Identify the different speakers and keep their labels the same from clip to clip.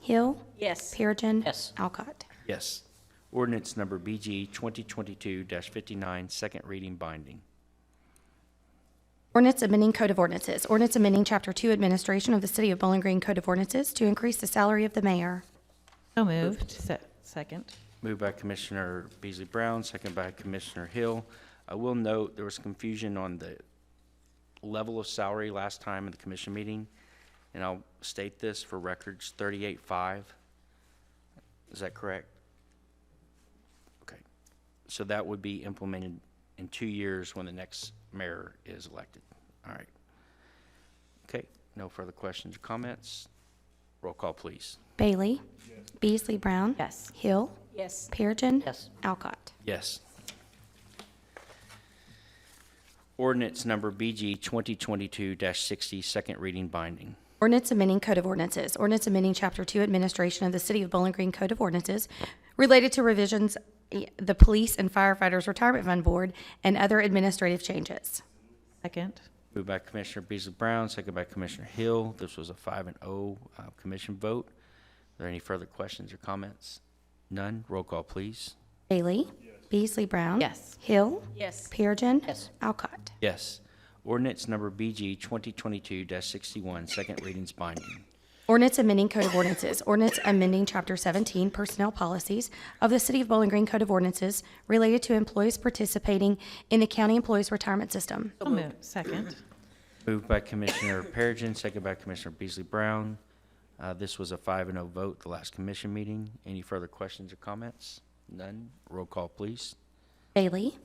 Speaker 1: Hill,
Speaker 2: Yes.
Speaker 1: Perigin.
Speaker 3: Yes.
Speaker 1: Alcott.
Speaker 4: Yes. Ordinance number BG 2022-59, second reading binding.
Speaker 1: Ordinance amending Code of Ordinances. Ordinance amending Chapter 2 Administration of the City of Bowling Green Code of Ordinances to increase the salary of the mayor.
Speaker 5: So moved. Se- Second.
Speaker 4: Moved by Commissioner Beasley Brown, second by Commissioner Hill. I will note, there was confusion on the level of salary last time in the commission meeting, and I'll state this for records, thirty-eight-five. Is that correct? Okay. So that would be implemented in two years when the next mayor is elected. All right. Okay, no further questions or comments? Roll call, please.
Speaker 1: Bailey. Beasley Brown.
Speaker 5: Yes.
Speaker 1: Hill.
Speaker 2: Yes.
Speaker 1: Perigin.
Speaker 3: Yes.
Speaker 1: Alcott.
Speaker 4: Yes. Ordinance number BG 2022-60, second reading binding.
Speaker 1: Ordinance amending Code of Ordinances. Ordinance amending Chapter 2 Administration of the City of Bowling Green Code of Ordinances related to revisions, eh, the Police and Firefighters Retirement Fund Board, and other administrative changes.
Speaker 5: Second.
Speaker 4: Moved by Commissioner Beasley Brown, second by Commissioner Hill. This was a five and oh uh, commission vote. Are there any further questions or comments? None. Roll call, please.
Speaker 1: Bailey. Beasley Brown.
Speaker 5: Yes.
Speaker 1: Hill.
Speaker 2: Yes.
Speaker 1: Perigin.
Speaker 3: Yes.
Speaker 1: Alcott.
Speaker 4: Yes. Ordinance number BG 2022-61, second readings binding.
Speaker 1: Ordinance amending Code of Ordinances. Ordinance amending Chapter 17 Personnel Policies of the City of Bowling Green Code of Ordinances related to employees participating in the County Employees Retirement System.
Speaker 5: So moved. Second.
Speaker 4: Moved by Commissioner Perigin, second by Commissioner Beasley Brown. Uh, This was a five and oh vote, the last commission meeting. Any further questions or comments? None. Roll call, please.
Speaker 1: Bailey.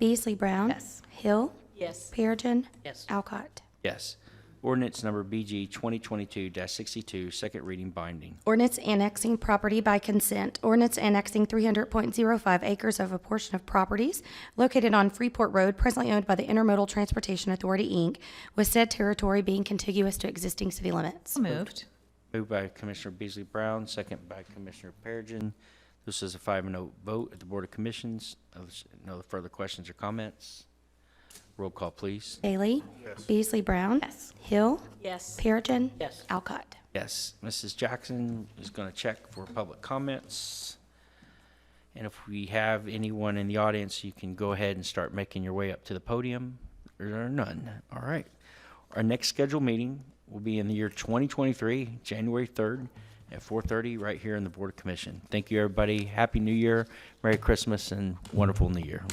Speaker 1: Beasley Brown.
Speaker 5: Yes.
Speaker 1: Hill.
Speaker 2: Yes.
Speaker 1: Perigin.
Speaker 3: Yes.
Speaker 1: Alcott.
Speaker 4: Yes. Ordinance number BG 2022-62, second reading binding.
Speaker 1: Ordinance annexing property by consent. Ordinance annexing 300.05 acres of a portion of properties located on Freeport Road presently owned by the Intermodal Transportation Authority, Inc., with said territory being contiguous to existing city limits.
Speaker 5: So moved.
Speaker 4: Moved by Commissioner Beasley Brown, second by Commissioner Perigin. This is a five and oh vote at the Board of Commissions. Uh, No further questions or comments? Roll call, please.
Speaker 1: Bailey. Beasley Brown.
Speaker 5: Yes.
Speaker 1: Hill.
Speaker 2: Yes.
Speaker 1: Perigin.
Speaker 3: Yes.
Speaker 1: Alcott.
Speaker 4: Yes, Mrs. Jackson is going to check for public comments. And if we have anyone in the audience, you can go ahead and start making your way up to the podium. There are none. All right. Our next scheduled meeting will be in the year 2023, January 3rd at 4:30 right here in the Board of Commission. Thank you, everybody. Happy New Year, Merry Christmas, and wonderful New Year.